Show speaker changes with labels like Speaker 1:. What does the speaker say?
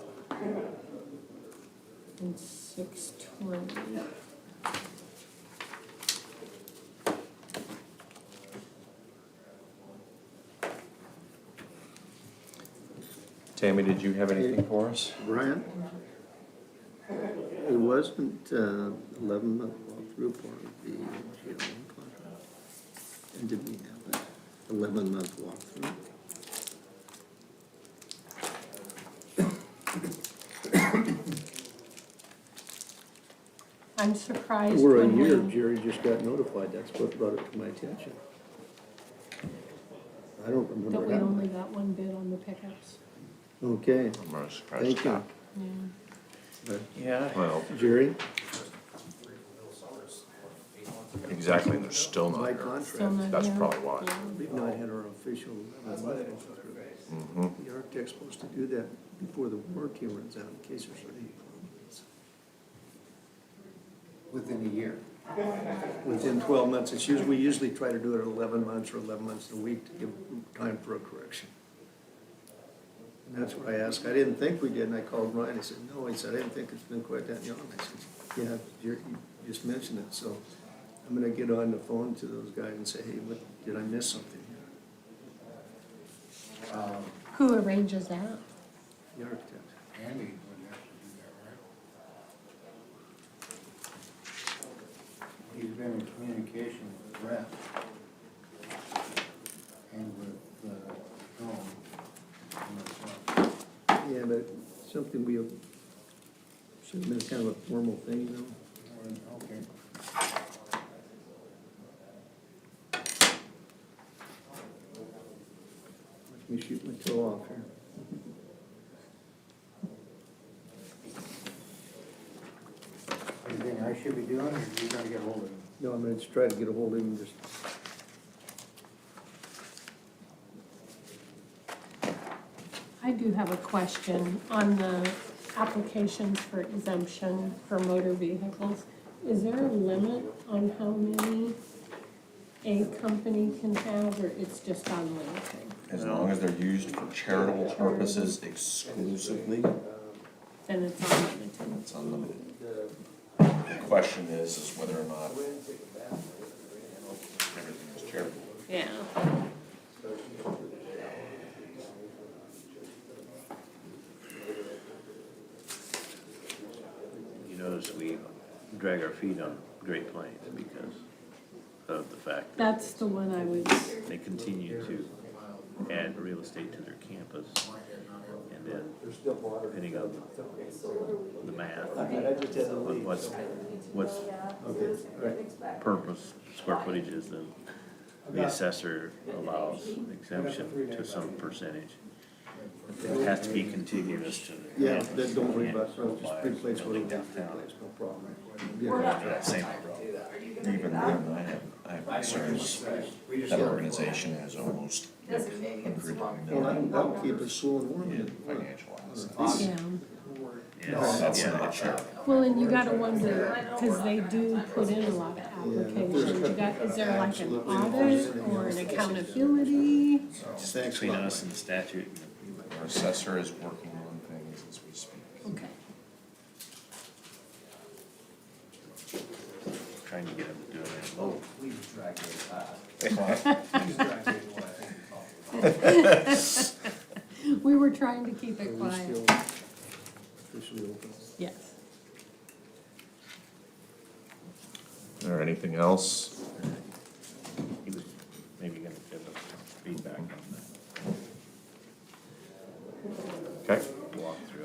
Speaker 1: and six twenty.
Speaker 2: Tammy, did you have anything for us?
Speaker 3: Brian? It wasn't uh, eleven month walkthrough part of the GLM contract? And did we have that eleven month walkthrough?
Speaker 1: I'm surprised
Speaker 3: We're a
Speaker 1: when
Speaker 3: year,
Speaker 1: we,
Speaker 3: Jerry just got notified, that's what brought it to my attention. I don't
Speaker 1: that
Speaker 3: remember
Speaker 1: we only
Speaker 3: that.
Speaker 1: got one bid on the pickups.
Speaker 3: Okay,
Speaker 2: I'm really surprised.
Speaker 3: thank you.
Speaker 1: Yeah.
Speaker 3: But
Speaker 2: Yeah. Well,
Speaker 3: Jerry,
Speaker 2: exactly, they're still not
Speaker 3: my
Speaker 2: here.
Speaker 1: Still
Speaker 3: contract,
Speaker 1: not
Speaker 2: That's
Speaker 1: here.
Speaker 2: probably why.
Speaker 1: Yeah.
Speaker 3: we've not had our official eleven month walkthrough.
Speaker 2: Mhm.
Speaker 3: The architect's supposed to do that before the warranty runs out in case there's any problems.
Speaker 4: Within a year.
Speaker 3: Within twelve months, it's usually, we usually try to do it at eleven months or eleven months a week to give time for a correction. And that's what I asked, I didn't think we did, and I called Ryan, he said, no, he said, I didn't think it's been quite that long. I said, yeah, you're, you just mentioned it, so I'm gonna get on the phone to those guys and say, hey, what, did I miss something here?
Speaker 4: Um,
Speaker 1: Who arranges that?
Speaker 3: The architect.
Speaker 4: Andy would have to do that, right? He's been in communication with Brett and with, uh, Tom and myself.
Speaker 3: Yeah, but something we, should have been kind of a formal thing, you know?
Speaker 4: Okay.
Speaker 3: Let me shoot my toe off here.
Speaker 4: Anything I should be doing, or you gotta get hold of him?
Speaker 3: No, I'm gonna just try to get a hold of him, just.
Speaker 1: I do have a question on the applications for exemption for motor vehicles. Is there a limit on how many a company can have, or it's just unlimited?
Speaker 2: As long as they're used for charitable purposes exclusively,
Speaker 1: Then it's unlimited.
Speaker 2: it's unlimited. The question is, is whether or not everything is charitable.
Speaker 1: Yeah.
Speaker 5: You notice we drag our feet on Great Plains because of the fact that
Speaker 1: That's the one I was,
Speaker 5: they continue to add real estate to their campus. And then depending on the math, on what's, what's purpose, square footage is, then the assessor allows exemption to some percentage. It has to be contiguous to. the
Speaker 3: Yeah,
Speaker 5: campus.
Speaker 3: then don't worry about, it.
Speaker 5: Campus
Speaker 3: just replace
Speaker 5: applies,
Speaker 3: what
Speaker 5: building
Speaker 3: it is,
Speaker 5: downtown.
Speaker 3: replace, no problem. Yeah,
Speaker 2: After that same, even then, I have, I have concerns. That organization has almost like a group of
Speaker 3: Well,
Speaker 2: million
Speaker 3: that'll- that'll keep us slow and warm.
Speaker 2: in financial assets.
Speaker 1: yeah.
Speaker 5: Yes,
Speaker 2: That's
Speaker 5: yeah.
Speaker 2: not charitable.
Speaker 1: Well, and you gotta wonder, cause they do put in a lot of applications, you got, is there like an audit or an accountability?
Speaker 3: Thanks a
Speaker 5: Between
Speaker 3: lot.
Speaker 5: us and the statute and the
Speaker 2: Our assessor is working on things as we speak.
Speaker 1: Okay.
Speaker 5: trying to get him to do it at low.
Speaker 4: Please drag it, uh,
Speaker 2: Well,
Speaker 4: please drag it
Speaker 1: We were trying to keep it
Speaker 3: Are we
Speaker 1: quiet.
Speaker 3: still officially open?
Speaker 1: Yes.
Speaker 2: Is there anything else?
Speaker 5: He was maybe gonna give us some feedback on that.
Speaker 2: Okay,